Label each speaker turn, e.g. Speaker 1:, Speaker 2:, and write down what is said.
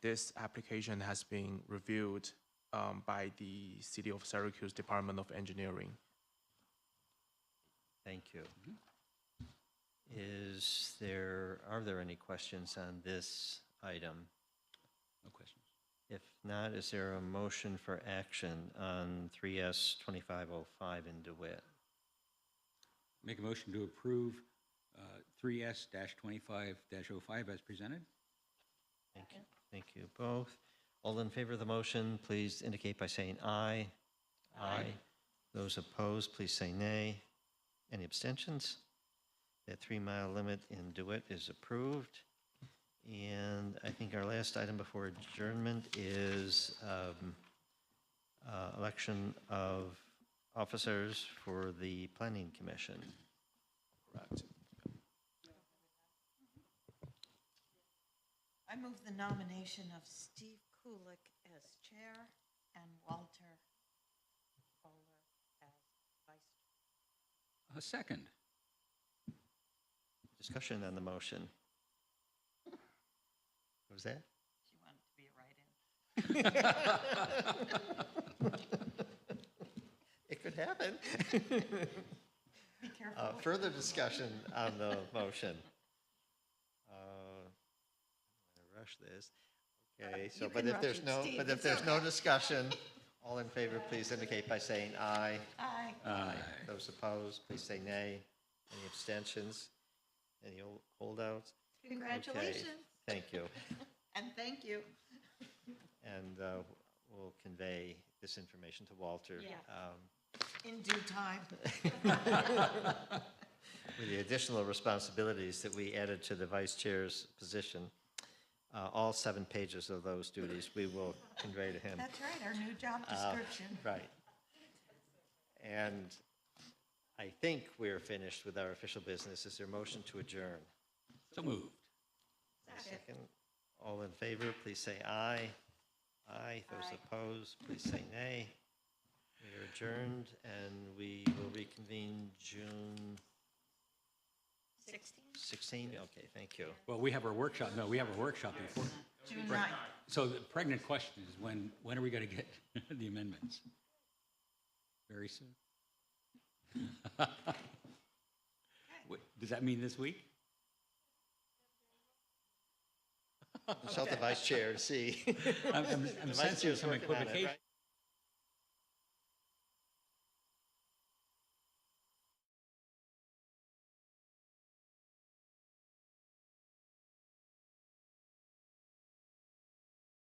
Speaker 1: this application has been reviewed um, by the City of Syracuse Department of Engineering.
Speaker 2: Thank you. Is there, are there any questions on this item?
Speaker 3: No questions.
Speaker 2: If not, is there a motion for action on 3S 2505 in DeWitt?
Speaker 3: Make a motion to approve uh, 3S-25-05 as presented.
Speaker 2: Thank you. Thank you both. All in favor of the motion, please indicate by saying aye. Aye. Those opposed, please say nay. Any abstentions? That three-mile limit in DeWitt is approved. And I think our last item before adjournment is um, uh, election of officers for the Planning Commission.
Speaker 1: Correct.
Speaker 4: I move the nomination of Steve Kulik as chair and Walter Bowler as vice.
Speaker 3: A second.
Speaker 2: Discussion on the motion. What was that?
Speaker 4: She wanted to be a write-in.
Speaker 2: It could happen.
Speaker 4: Be careful.
Speaker 2: Uh, Further discussion on the motion. Uh, I'm gonna rush this. Okay, so,
Speaker 4: Uh, You
Speaker 2: but
Speaker 4: can
Speaker 2: if
Speaker 4: rush
Speaker 2: there's
Speaker 4: it,
Speaker 2: no,
Speaker 4: Steve,
Speaker 2: but if
Speaker 4: it's
Speaker 2: there's no
Speaker 4: okay.
Speaker 2: discussion, all in favor, please indicate by saying aye.
Speaker 4: Aye.
Speaker 3: Aye.
Speaker 2: Those opposed, please say nay. Any abstentions? Any hol- holdouts? Okay,
Speaker 4: Congratulations
Speaker 2: Thank you.
Speaker 4: and thank you.
Speaker 2: And uh, we'll convey this information to Walter.
Speaker 4: Yeah.
Speaker 2: um,
Speaker 4: In due time.
Speaker 2: with the additional responsibilities that we added to the vice chair's position, uh, all seven pages of those duties, we will convey to him.
Speaker 4: That's right, our new job
Speaker 2: Uh,
Speaker 4: description.
Speaker 2: Right. And I think we're finished with our official business. Is there a motion to adjourn?
Speaker 3: So moved.
Speaker 4: Second.
Speaker 2: Second. All in favor, please say aye. Aye. Those
Speaker 4: Aye.
Speaker 2: opposed, please say nay. We are adjourned, and we will reconvene June
Speaker 4: 16?
Speaker 2: 16? Okay, thank you.
Speaker 3: Well, we have our workshop, no, we have our workshop before.
Speaker 4: June 9th.
Speaker 3: So the pregnant question is when, when are we going to get the amendments? Very soon? Wait, Does that mean this week?
Speaker 2: Consult the vice chair to see.
Speaker 3: I'm- I'm I'm
Speaker 2: vice
Speaker 3: sensing
Speaker 2: chair's
Speaker 3: some
Speaker 2: working on it,
Speaker 3: equivocation.
Speaker 2: right?